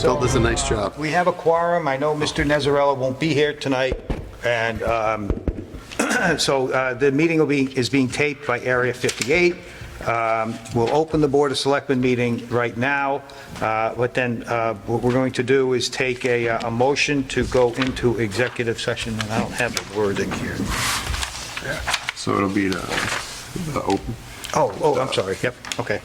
Phil does a nice job. We have a quorum. I know Mr. Nezarella won't be here tonight, and um, so uh, the meeting will be, is being taped by Area 58. Um, We'll open the Board of Selectmen meeting right now, Uh, but then uh, what we're going to do is take a, uh, a motion to go into executive session, and I don't have the wording here. So it'll be the, the open. Oh, oh, I'm sorry, yep, okay.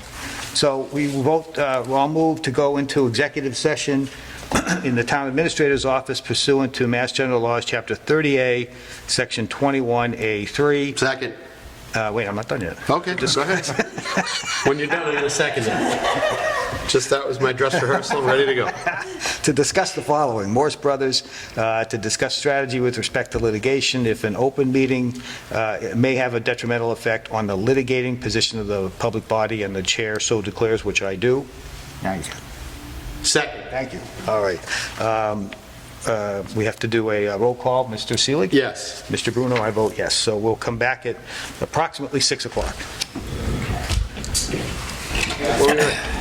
So we will vote, uh, well, I'll move to go into executive session in the town administrator's office pursuant to Mass General Laws, Chapter 30A, Section 21A3. Second. Uh, Wait, I'm not done yet. Okay, just go ahead. When you're done, I'm going to second it. Just that was my dress rehearsal, ready to go. To discuss the following, Morse Brothers, uh, to discuss strategy with respect to litigation if an open meeting uh, it may have a detrimental effect on the litigating position of the public body and the chair so declares, which I do. Second. Thank you. All right. Um, uh, We have to do a uh, roll call. Mr. Seelig? Yes. Mr. Bruno, I vote yes. So we'll come back at approximately 6 o'clock.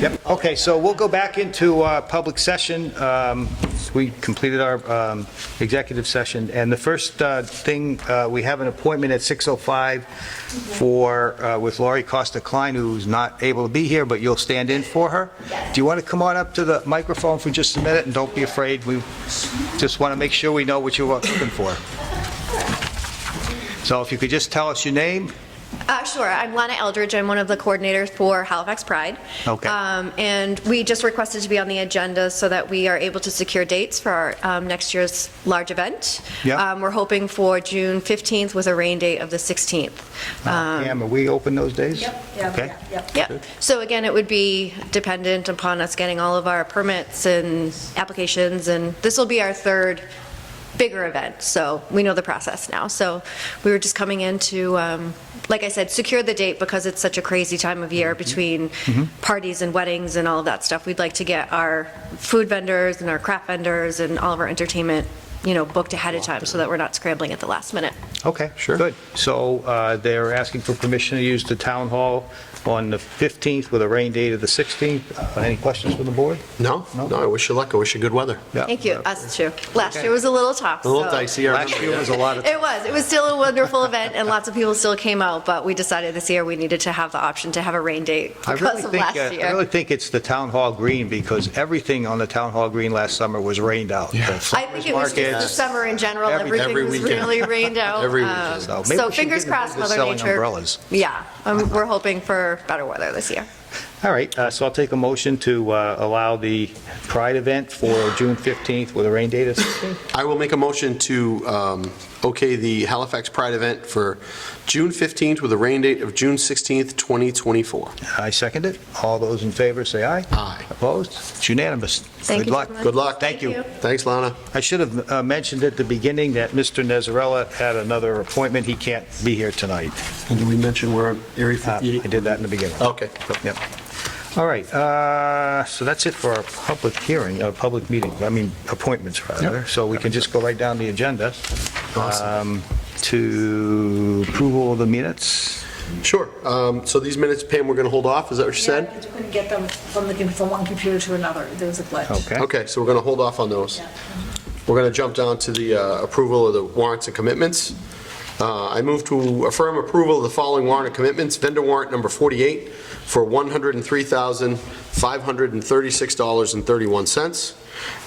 Yep, okay, so we'll go back into uh, public session. Um, We completed our um, executive session, and the first uh, thing, uh, we have an appointment at 6:05 for, uh, with Laurie Costa Klein, who's not able to be here, but you'll stand in for her. Do you want to come on up to the microphone for just a minute, and don't be afraid, we just want to make sure we know what you're looking for. So if you could just tell us your name, Uh, sure. I'm Lana Eldridge. I'm one of the coordinators for Halifax Pride. Okay. Um, and we just requested to be on the agenda so that we are able to secure dates for our um, next year's large event. Yeah. Um, we're hoping for June 15th with a rain date of the 16th. Um, Pam, are we open those days? Yep, yeah, Okay. yeah, yep. yeah. So again, it would be dependent upon us getting all of our permits and applications, and this will be our third bigger event, so we know the process now. So we were just coming in to, um, like I said, secure the date because it's such a crazy time of Mm-hmm. year between parties and weddings and all of that stuff. We'd like to get our food vendors and our craft vendors and all of our entertainment, you know, booked ahead of time so that we're not scrambling at the last minute. Okay, sure. Good. So uh, they're asking for permission to use the town hall on the 15th with a rain date of the 16th. Uh, Any questions from the board? No? No. No, I wish you luck. I wish you good weather. Yeah. Thank you, us too. Last year was a little tough. A little so- dicey. I Last remember, year yeah. was a lot of, It was. It was still a wonderful event, and lots of people still came out, but we decided this year we needed to have the option to have a rain date I really because of think, last uh, I really year. think it's the town hall green because everything on the town hall green last summer was rained out. The I think farmers it was just the markets. summer in general, Every- everything every was weekend. really rained out. Every um, weekend. So maybe we So should fingers get into crossed, Mother selling Nature. umbrellas. Yeah, um, we're hoping for better weather this year. All right, uh, so I'll take a motion to uh, allow the Pride event for June 15th with a rain date of 16th. I will make a motion to um, okay the Halifax Pride event for June 15th with a rain date of June 16th, 2024. I second it. All those in favor, say aye. Aye. Opposed? It's unanimous. Thank Good you, luck. gentlemen. Good luck. Thank you. Thanks, Lana. I should have uh, mentioned at the beginning that Mr. Nezarella had another appointment. He can't be here tonight. And did we mention we're on Area Uh, I did that in the beginning. Okay. Yep. All right, uh, so that's it for our public hearing, our public meeting, I mean, appointments, rather. So we can just go right down the agenda um, to approval of the minutes. Sure. Um, So these minutes, Pam, we're going to hold off? Is that what you Yeah, said? I couldn't get them from the, from one computer to another, there was a glitch. Okay. Okay, so we're going to hold off on those. Yeah. We're going to jump down to the uh, approval of the warrants and commitments. Uh, I move to affirm approval of the following warrant and commitments. Vendor warrant number 48 for $103,536.31.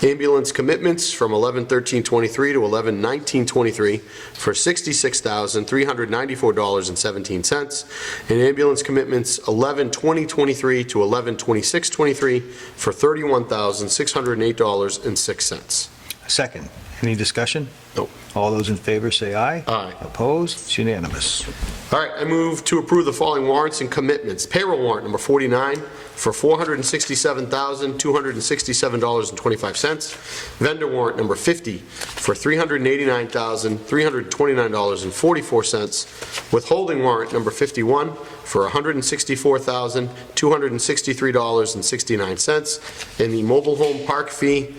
Ambulance commitments from 11/13/23 to 11/19/23 for $66,394.17. And ambulance commitments 11/20/23 to 11/26/23 for $31,608.06. Second, any discussion? Nope. All those in favor say aye. Aye. Opposed? It's unanimous. All right, I move to approve the following warrants and commitments. Payroll warrant number 49 for $467,267.25. Vendor warrant number 50 for $389,329.44. Withholding warrant number 51 for $164,263.69. And the mobile home park fee